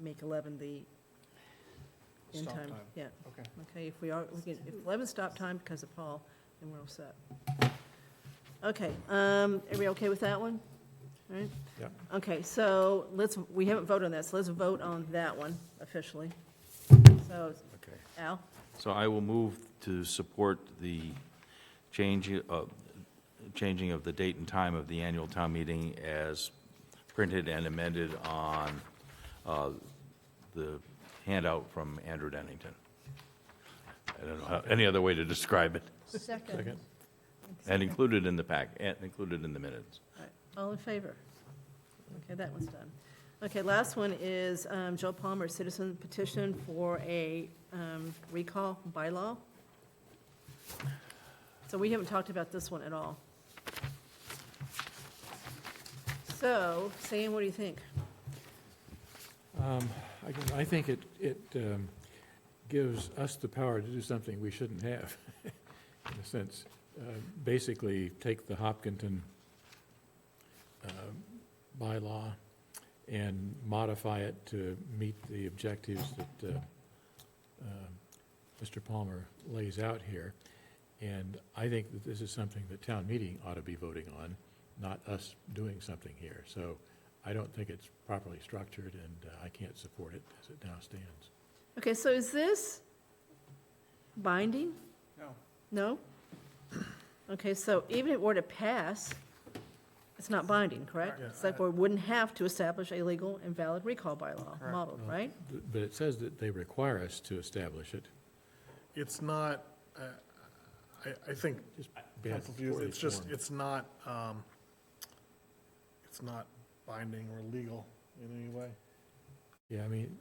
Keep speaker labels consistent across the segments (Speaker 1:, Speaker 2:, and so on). Speaker 1: make 11 the end
Speaker 2: Stop
Speaker 1: time.
Speaker 2: time.
Speaker 1: Yeah,
Speaker 2: Okay.
Speaker 1: okay, if we are, we can, if 11 stop time because of Paul, then we're all set. Okay, um, are we okay with that one? All right?
Speaker 2: Yeah.
Speaker 1: Okay, so let's, we haven't voted on that, so let's vote on that one officially. So,
Speaker 2: Okay.
Speaker 1: Al,
Speaker 3: So I will move to support the change, uh, changing of the date and time of the annual town meeting as printed and amended on uh, the handout from Andrew Dennington. I don't know how- any other way to describe it,
Speaker 1: second.
Speaker 3: and included in the pack, and included in the minutes.
Speaker 1: All right, All in favor? Okay, that one's done. Okay, last one is um, Joe Palmer, citizen petition for a um, recall bylaw. So we haven't talked about this one at all. So, Sam, what do you think?
Speaker 4: Um, Again, I think it, it um, gives us the power to do something we shouldn't have, in a sense. Uh, Basically, take the Hopkinton um, bylaw and modify it to meet the objectives that uh, um, Mr. Palmer lays out here. And I think that this is something that town meeting ought to be voting on, not us doing something here. So I don't think it's properly structured, and uh, I can't support it as it now stands.
Speaker 1: Okay, so is this binding?
Speaker 2: No.
Speaker 1: No? Okay, so even if it were to pass, it's not binding, correct?
Speaker 2: Correct.
Speaker 1: Select board wouldn't have to establish a legal and valid recall bylaw
Speaker 2: Correct.
Speaker 1: model,
Speaker 4: Mm-hmm.
Speaker 1: right?
Speaker 4: Th- But it says that they require us to establish it.
Speaker 5: It's not, uh, I, I think,
Speaker 4: Just
Speaker 5: I'm
Speaker 4: bad,
Speaker 5: confused,
Speaker 4: poorly
Speaker 5: it's just,
Speaker 4: formed.
Speaker 5: it's not, um, it's not binding or legal in any way.
Speaker 4: Yeah, I mean,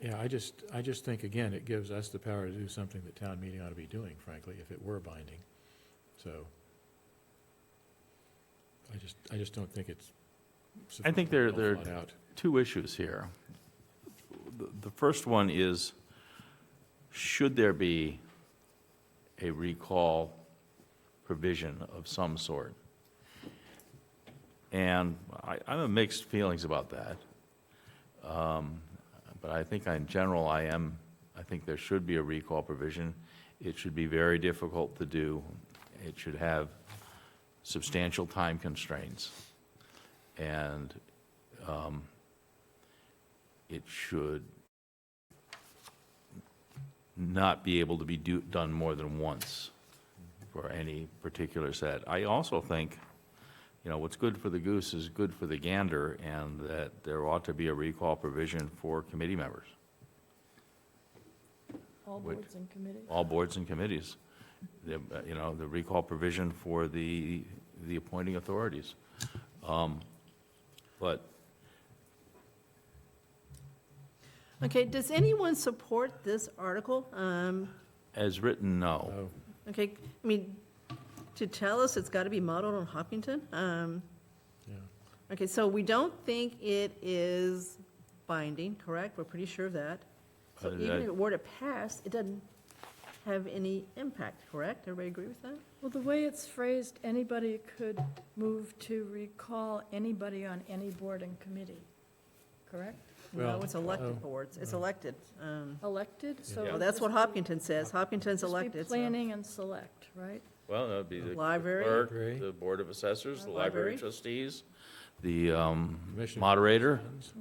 Speaker 4: yeah, I just, I just think, again, it gives us the power to do something that town meeting ought to be doing, frankly, if it were binding. So I just, I just don't think it's.
Speaker 3: I think there-
Speaker 4: sufficiently well
Speaker 3: there-
Speaker 4: thought out.
Speaker 3: two issues here. The the first one is, should there be a recall provision of some sort? And I, I'm of mixed feelings about that. Um, But I think in general, I am, I think there should be a recall provision. It should be very difficult to do. It should have substantial time constraints. And um, it should not be able to be do, done more than once for any particular set. I also think, you know, what's good for the goose is good for the gander, and that there ought to be a recall provision for committee members,
Speaker 6: All
Speaker 3: Would-
Speaker 6: boards and committees.
Speaker 3: all boards and committees. The, uh, You know, the recall provision for the, the appointing authorities. Um, But
Speaker 1: Okay, does anyone support this article? Um,
Speaker 3: as written, no.
Speaker 4: So,
Speaker 1: Okay, I mean, to tell us it's got to be modeled on Hopkinton? Um,
Speaker 4: yeah.
Speaker 1: Okay, so we don't think it is binding, correct? We're pretty sure of that. So
Speaker 3: Uh,
Speaker 1: even
Speaker 3: I-
Speaker 1: if it were to pass, it doesn't have any impact, correct? Everybody agree with that?
Speaker 6: Well, the way it's phrased, anybody could move to recall anybody on any board and committee, correct?
Speaker 1: No,
Speaker 4: Well,
Speaker 1: it's
Speaker 4: oh,
Speaker 1: elected boards, it's
Speaker 4: no.
Speaker 1: elected. Um,
Speaker 6: Elected,
Speaker 3: Yeah.
Speaker 6: so.
Speaker 1: Well,
Speaker 6: it'd
Speaker 1: that's
Speaker 6: just
Speaker 1: what
Speaker 6: be-
Speaker 1: Hopkinton says, Hopkinton's
Speaker 6: just be
Speaker 1: elected. so-
Speaker 6: Planning and select, right?
Speaker 3: Well, that would be the
Speaker 1: Library.
Speaker 3: clerk,
Speaker 4: Library.
Speaker 3: the Board of Assessors, the
Speaker 1: Library.
Speaker 3: library trustees, the um,
Speaker 4: Commissioner-
Speaker 3: moderator,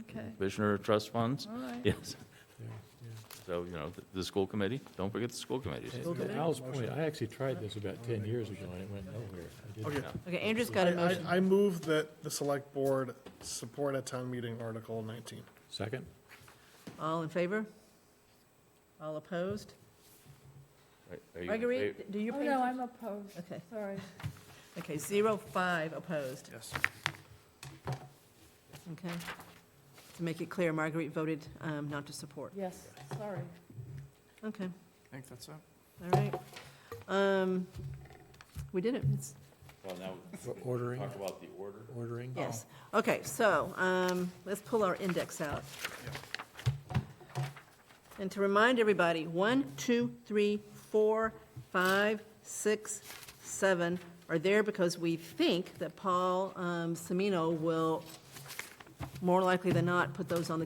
Speaker 6: Okay,
Speaker 1: Mm-hmm.
Speaker 3: commissioner of trust funds,
Speaker 6: all right.
Speaker 3: yes.
Speaker 4: Yeah, yeah.
Speaker 3: So, you know, the- the school committee, don't forget the school committees.
Speaker 4: And
Speaker 1: School
Speaker 4: to
Speaker 1: committee?
Speaker 4: Al's point, I actually tried this about 10 years ago, and it went nowhere. I didn't-
Speaker 5: Okay.
Speaker 1: Okay, Andrew's got a
Speaker 5: I- I-
Speaker 1: motion.
Speaker 5: I move that the select board support a town meeting Article 19.
Speaker 4: Second?
Speaker 1: All in favor? All opposed?
Speaker 3: Are- are you in
Speaker 1: Marguerite,
Speaker 3: favor?
Speaker 1: d- do you?
Speaker 6: Oh,
Speaker 1: pay
Speaker 6: no,
Speaker 1: atten-
Speaker 6: I'm opposed,
Speaker 1: Okay,
Speaker 6: sorry.
Speaker 1: okay, zero, five opposed,
Speaker 5: Yes.
Speaker 1: okay. To make it clear, Marguerite voted um, not to support.
Speaker 6: Yes, sorry.
Speaker 1: Okay,
Speaker 2: I think that's it.
Speaker 1: all right. Um, We did it, It's-
Speaker 3: Well, now,
Speaker 4: For Ordering,
Speaker 3: talk about the order.
Speaker 4: ordering?
Speaker 1: yes. Okay, so um, let's pull our index out. And to remind everybody, one, two, three, four, five, six, seven are there because we think that Paul um, Semino will, more likely than not, put those on the